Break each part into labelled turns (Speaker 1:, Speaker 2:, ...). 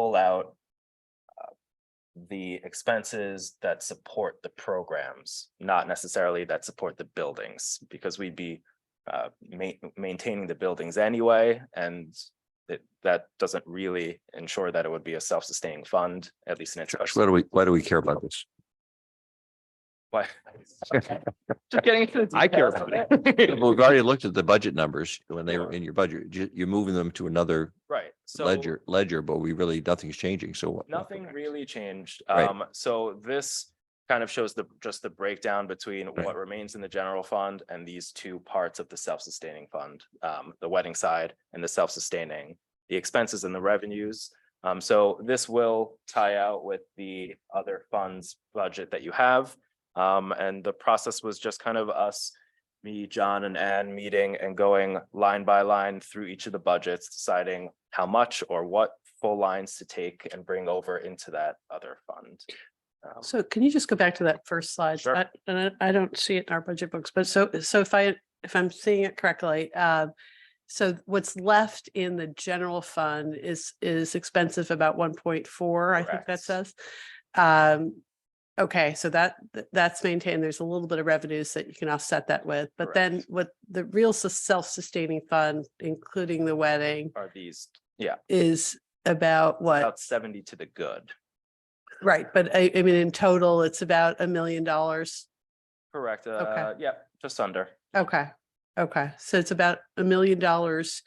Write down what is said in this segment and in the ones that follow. Speaker 1: pull out uh, the expenses that support the programs, not necessarily that support the buildings, because we'd be uh, ma- maintaining the buildings anyway, and that, that doesn't really ensure that it would be a self-sustaining fund, at least in
Speaker 2: Josh,
Speaker 1: interest.
Speaker 2: why do we, why do we care about this?
Speaker 1: Why? Just getting into the
Speaker 2: I care
Speaker 1: details of
Speaker 2: about We've already looked at the budget numbers when they were in your budget. You- You're moving them to another
Speaker 1: Right, so.
Speaker 2: ledger, ledger, but we really, nothing's changing. So. what-
Speaker 1: Nothing really changed.
Speaker 2: Right.
Speaker 1: Um, so this kind of shows the, just the breakdown between what remains in the general fund and these two parts of the self-sustaining fund. Um, the wedding side and the self-sustaining, the expenses and the revenues. Um, so this will tie out with the other funds budget that you have. Um, and the process was just kind of us, me, John and Ann meeting and going line by line through each of the budgets, deciding how much or what full lines to take and bring over into that other fund. Um,
Speaker 3: So can you just go back to that first slide?
Speaker 1: Sure.
Speaker 3: I- And I I don't see it in our budget books, but so, so if I, if I'm seeing it correctly, uh, so what's left in the general fund is, is expensive about one point four, I think
Speaker 1: Correct.
Speaker 3: that says. Um, okay, so that, th- that's maintained. There's a little bit of revenues that you can offset that with, but then
Speaker 1: Correct.
Speaker 3: what the real sus- self-sustaining fund, including the wedding,
Speaker 1: Are these, yeah,
Speaker 3: is about what?
Speaker 1: about seventy to the good,
Speaker 3: Right, but I, I mean, in total, it's about a million dollars
Speaker 1: correct? Uh, yeah, just under.
Speaker 3: Okay, okay, so it's about a million dollars.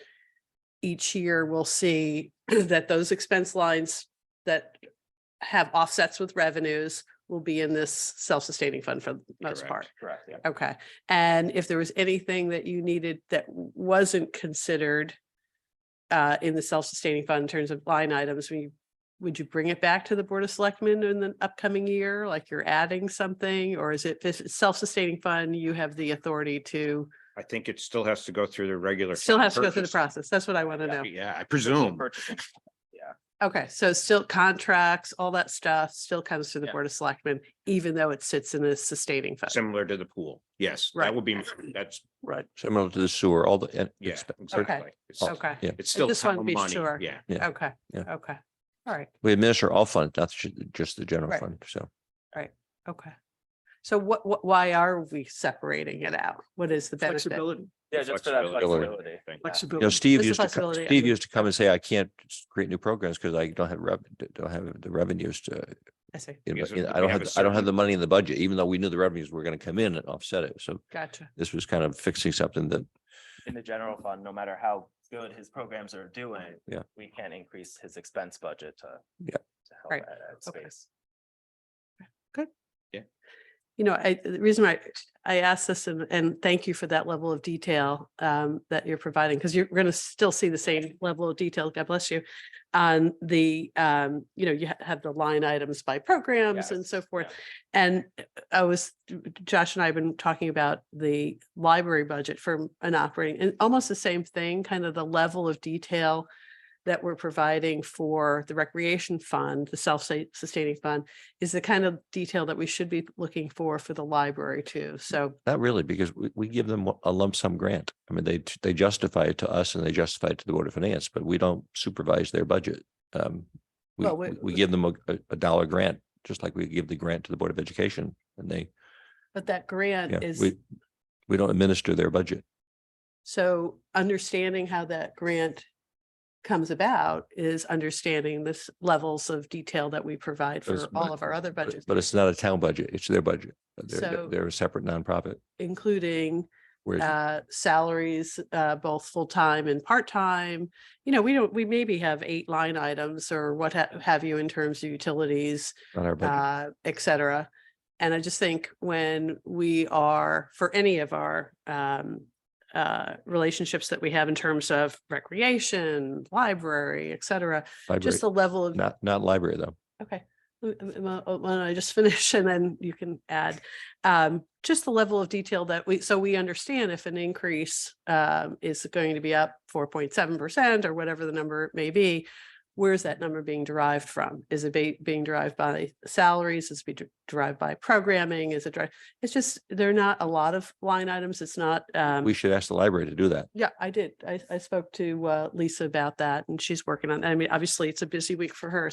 Speaker 3: Each year, we'll see that those expense lines that have offsets with revenues will be in this self-sustaining fund for the most
Speaker 1: Correct,
Speaker 3: part.
Speaker 1: Correct, yeah.
Speaker 3: Okay, and if there was anything that you needed that wasn't considered uh, in the self-sustaining fund in terms of line items, we, would you bring it back to the Board of Selectmen in the upcoming year? Like you're adding something, or is it this is self-sustaining fund, you have the authority to,
Speaker 4: I think it still has to go through the regular.
Speaker 3: still
Speaker 4: fund
Speaker 3: has to go through the
Speaker 4: purchase.
Speaker 3: process? That's what I want to know.
Speaker 4: Yeah, I presume.
Speaker 1: Um, Purchasing.
Speaker 3: Okay, so still contracts, all that stuff still comes through the
Speaker 1: Yeah.
Speaker 3: Board of Selectmen, even though it sits in the sustaining fund.
Speaker 4: Similar to the pool. Yes,
Speaker 3: Right.
Speaker 4: that would be, that's,
Speaker 3: Right.
Speaker 2: Similar to the sewer, all the. and
Speaker 4: yeah.
Speaker 2: expe-
Speaker 4: exactly. It's-
Speaker 3: Okay,
Speaker 2: Yeah.
Speaker 4: It's still
Speaker 3: just wanted to
Speaker 4: town
Speaker 3: be
Speaker 4: money.
Speaker 3: sure.
Speaker 4: Yeah.
Speaker 2: Oh, Yeah.
Speaker 3: okay,
Speaker 2: Yeah.
Speaker 3: okay, all right.
Speaker 2: We administer all funds, not ju- just the general
Speaker 3: Right.
Speaker 2: fund. So
Speaker 3: Okay. So what, what, why are we separating it out? What is the benefit? Uh,
Speaker 5: Flexibility,
Speaker 1: Yeah, just for that
Speaker 4: Flexibility.
Speaker 1: flexibility.
Speaker 4: Thank you.
Speaker 1: Yeah.
Speaker 2: you
Speaker 5: flexibility.
Speaker 2: know, Steve
Speaker 3: There's a
Speaker 2: used to, co-
Speaker 3: possibility, I
Speaker 2: Steve
Speaker 3: think.
Speaker 2: used to come and say, I can't s- create new programs because I don't have rev, don't have the revenues to.
Speaker 3: I see.
Speaker 2: you know,
Speaker 4: Because
Speaker 2: you know,
Speaker 4: we
Speaker 2: I don't
Speaker 4: have
Speaker 2: have,
Speaker 4: a
Speaker 2: the- I don't have
Speaker 4: certain-
Speaker 2: the money in the budget, even though we knew the revenues were going to come in and offset it. So
Speaker 3: Gotcha.
Speaker 2: this was kind of fixing something that
Speaker 1: In the general fund, no matter how good his programs are doing.
Speaker 2: Yeah.
Speaker 1: We can not increase his expense budget to.
Speaker 2: Yeah.
Speaker 1: To help
Speaker 3: Right,
Speaker 1: add add
Speaker 3: okay.
Speaker 1: space.
Speaker 3: You know, I, the reason why I asked this and, and thank you for that level of detail um, that you're providing, because you're going to still see the same level of detail, God bless you, on the, um, you know, you ha- have the line items by programs and
Speaker 1: Yes,
Speaker 3: so forth.
Speaker 1: yeah.
Speaker 3: And I was, Josh and I have been talking about the library budget for an operating, and almost the same thing, kind of the level of detail that we're providing for the recreation fund, the self-sustaining fund, is the kind of detail that we should be looking for for the library too. So,
Speaker 2: Not really, because we, we give them a lump sum grant. I mean, they, they justify it to us and they justify it to the Board of Finance, but we don't supervise their budget. Um, we,
Speaker 3: Well, we-
Speaker 2: we we give them a, a- a dollar grant, just like we give the grant to the Board of Education and they,
Speaker 3: but that grant
Speaker 2: yeah,
Speaker 3: is,
Speaker 2: we, we don't administer their budget.
Speaker 3: so understanding how that grant comes about is understanding this levels of detail that we provide
Speaker 2: It's
Speaker 3: for all
Speaker 2: not-
Speaker 3: of our other
Speaker 2: but-
Speaker 3: budgets,
Speaker 2: But it's not a town budget, it's their budget. Uh, They're,
Speaker 3: So-
Speaker 2: they're a separate nonprofit.
Speaker 3: including
Speaker 2: Whereas
Speaker 3: uh, salaries, uh, both full-time and part-time. You know, we don't, we maybe have eight line items or what ha- have you in terms of utilities,
Speaker 2: on our budget.
Speaker 3: uh, et cetera. And I just think when we are, for any of our, um, uh, relationships that we have in terms of recreation, library, et cetera,
Speaker 2: library.
Speaker 3: just the level of
Speaker 2: Not, not library though.
Speaker 3: Okay, L- l- well, uh, why don't I just finish and then you can add. Um, just the level of detail that we, so we understand if an increase um is going to be up four point seven percent or whatever the number may be. where's that number being derived from? Is it be- being derived by salaries? Is it be derived by programming? Is it, dri- it's just, there are not a lot of line items. It's not, um,
Speaker 2: We should ask the library to do that.
Speaker 3: yeah, I did. I, I spoke to, uh, Lisa about that and she's working on, I mean, obviously it's a busy week for her.